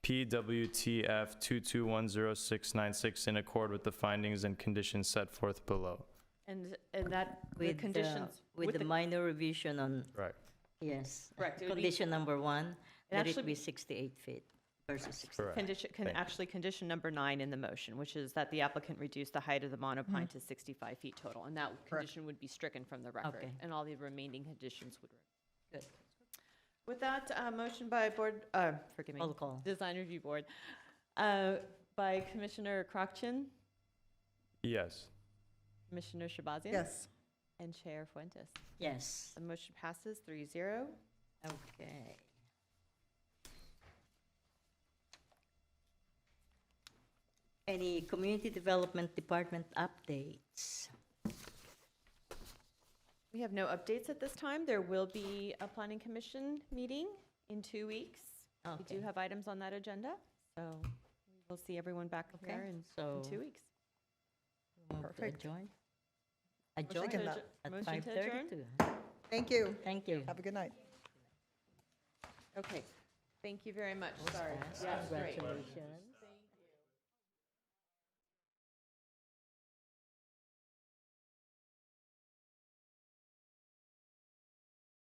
PWTF 2210696 in accord with the findings and conditions set forth below. And, and that, the With conditions. With the minor revision on, Right. yes. Correct, it would be- Condition number one, that actually it be- be 68 feet versus 60. Correct. Condition, can, Thank you. actually, condition number nine in the motion, which is that the applicant reduce the height of the monopine to Mm-hmm. 65 feet total. And that condition would be stricken from the record, Okay. and all the remaining conditions would. remain. Good. With that, uh, motion by Board, uh, forgive me, Roll call. Design Review Board, uh, by Commissioner Crochin, Yes. Commissioner Shabazian? Yes. And Chair Fuentes. Yes, The motion passes three zero. okay. Any Community Development Department updates? We have no updates at this time. There will be a planning commission meeting in two weeks. We Okay. do have items on that agenda, so we'll see everyone back Okay, here in- so- in two weeks. Move to Perfect. adjourn? Motion to Adjourn adjour- at Motion to adjourn? 5:32. Thank you. Thank you. Have a good night. Okay, thank you very much. That was Sorry. fast. Yes, great. Congratulations.